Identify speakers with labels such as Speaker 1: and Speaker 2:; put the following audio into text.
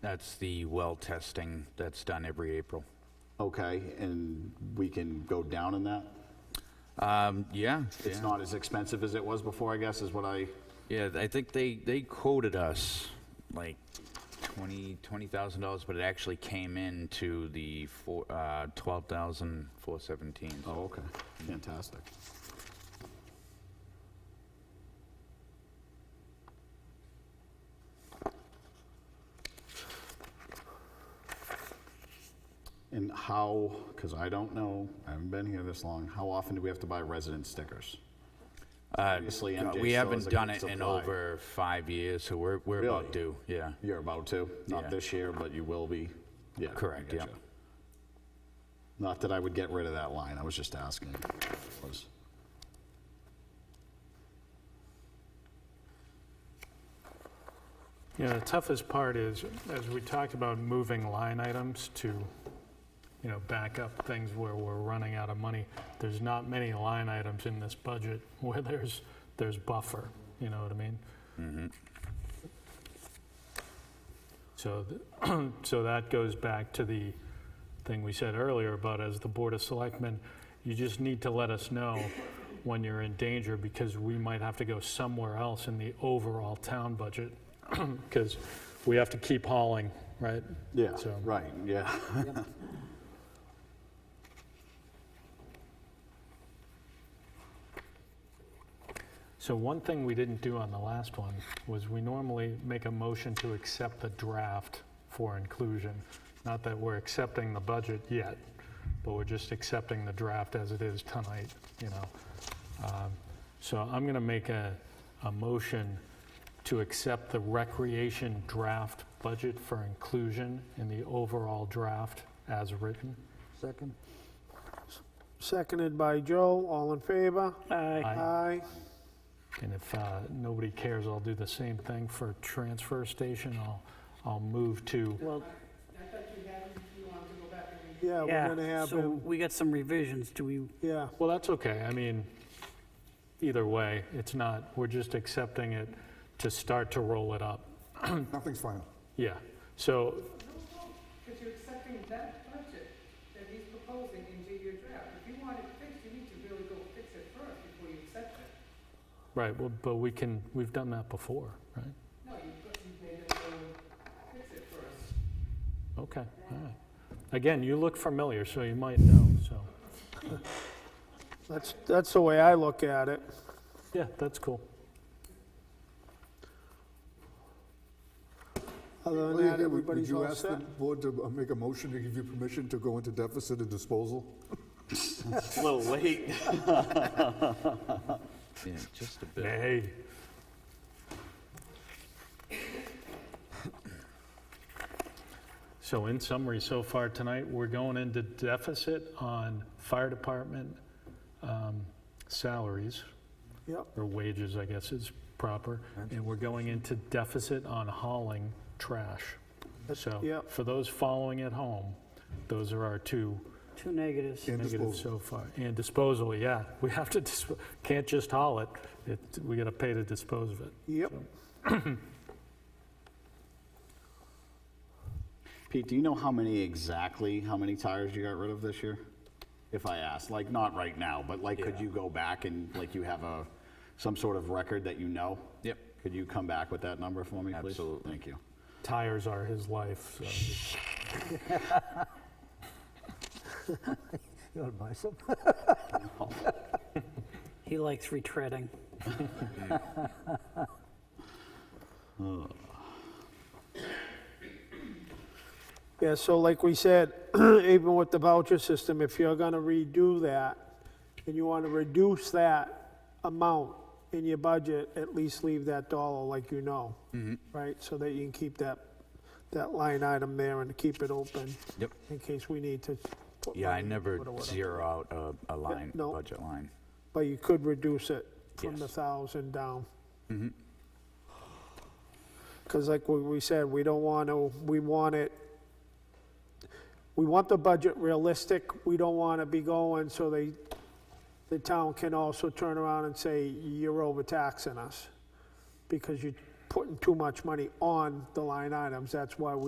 Speaker 1: That's the well testing that's done every April.
Speaker 2: Okay, and we can go down in that?
Speaker 1: Um, yeah,
Speaker 2: It's
Speaker 1: yeah.
Speaker 2: not as expensive as it was before, I guess, is what I,
Speaker 1: Yeah, I think they, they quoted us like 20, $20,000, but it actually came in to the four, uh, 12,417.
Speaker 2: oh, okay, fantastic. And how, because I don't know, I haven't been here this long, how often do we have to buy resident stickers?
Speaker 1: Uh,
Speaker 2: Obviously,
Speaker 1: uh,
Speaker 2: MJ
Speaker 1: We
Speaker 2: still
Speaker 1: haven't
Speaker 2: has a
Speaker 1: done
Speaker 2: good
Speaker 1: it in
Speaker 2: supply.
Speaker 1: over five years, so we're, we're
Speaker 2: Really?
Speaker 1: about due, yeah.
Speaker 2: You're about to,
Speaker 1: Yeah.
Speaker 2: not this year, but you will be. Yeah. I
Speaker 1: Correct, yeah.
Speaker 2: gotcha. Not that I would get rid of that line, I was just asking. Was-
Speaker 3: Yeah, the toughest part is, as we talked about moving line items to, you know, back up things where we're running out of money, there's not many line items in this budget where there's, there's buffer, you know what I mean? So, th- so that goes back to the thing we said earlier about as the Board of Selectmen, you just need to let us know when you're in danger because we might have to go somewhere else in the overall town budget because we have to keep hauling, right?
Speaker 2: Yeah,
Speaker 3: So-
Speaker 2: right, yeah.
Speaker 3: So one thing we didn't do on the last one was we normally make a motion to accept the draft for inclusion. Not that we're accepting the budget yet, but we're just accepting the draft as it is tonight, you know? Um, So I'm going to make a, a motion to accept the recreation draft budget for inclusion in the overall draft as written.
Speaker 4: Second. Seconded by Joe, all in favor?
Speaker 5: Uh,
Speaker 3: Aye.
Speaker 4: Aye.
Speaker 3: And if uh, nobody cares, I'll do the same thing for transfer station. I'll, I'll move to,
Speaker 5: Well,
Speaker 4: Yeah, we're gonna
Speaker 5: yeah,
Speaker 4: have
Speaker 5: so
Speaker 4: him,
Speaker 5: we got some revisions. Do we,
Speaker 4: yeah,
Speaker 3: well, that's okay. I mean, either way, it's not, we're just accepting it to start to roll it up.
Speaker 6: Nothing's final.
Speaker 3: Yeah, so,
Speaker 7: Because you're accepting that budget that he's proposing into your draft. If you want it fixed, you need to really go fix it first before you accept it.
Speaker 3: right, well, but we can, we've done that before, right?
Speaker 7: No, you put, you made it go fix it first.
Speaker 3: Okay, all right. Again, you look familiar, so you might know, so,
Speaker 4: that's, that's the way I look at it.
Speaker 3: yeah, that's cool.
Speaker 4: Other
Speaker 6: Well,
Speaker 4: than
Speaker 6: yeah,
Speaker 4: that,
Speaker 6: would- Would
Speaker 4: everybody's
Speaker 6: you
Speaker 4: all
Speaker 6: ask the
Speaker 4: set.
Speaker 6: board to uh, make a motion to give you permission to go into deficit and disposal?
Speaker 2: A little late.
Speaker 1: Yeah, just a bit.
Speaker 3: Nay. So in summary, so far tonight, we're going into deficit on fire department um, salaries,
Speaker 4: Yep,
Speaker 3: or wages, I guess is proper, and we're going into deficit on hauling trash. So
Speaker 4: yep.
Speaker 3: for those following at home, those are our two
Speaker 5: two negatives?
Speaker 6: And
Speaker 3: negatives
Speaker 6: disposal?
Speaker 3: so far. And disposal, yeah, we have to, dis- can't just haul it, It we got to pay to dispose of it.
Speaker 4: yep.
Speaker 2: Pete, do you know how many exactly, how many tires you got rid of this year? If I asked, like, not right now, but like, could you go back and, like, you have a, some sort of record that you know?
Speaker 1: Yep.
Speaker 2: Could you come back with that number for me, please?
Speaker 1: Absolutely.
Speaker 2: Thank you.
Speaker 3: tires are his life. So.
Speaker 8: You want to buy some?
Speaker 5: He likes retreading.
Speaker 4: Yeah, so like we said, even with the voucher system, if you're gonna redo that, and you wanna reduce that amount in your budget, at least leave that dollar like you know,
Speaker 1: Mm-hmm.
Speaker 4: right? So that you can keep that, that line item there and keep it open.
Speaker 1: Yep.
Speaker 4: In case we need to. put
Speaker 1: Yeah, I
Speaker 4: money
Speaker 1: never
Speaker 4: toward it, whatever.
Speaker 1: zero out a, a line,
Speaker 4: no.
Speaker 1: budget line.
Speaker 4: But you could reduce it from the
Speaker 1: Yes.
Speaker 4: thousand down. Because like we- we said, we don't want to, we want it, we want the budget realistic. We don't want to be going so they, the town can also turn around and say, you're overtaxing us because you're putting too much money on the line items. That's why we.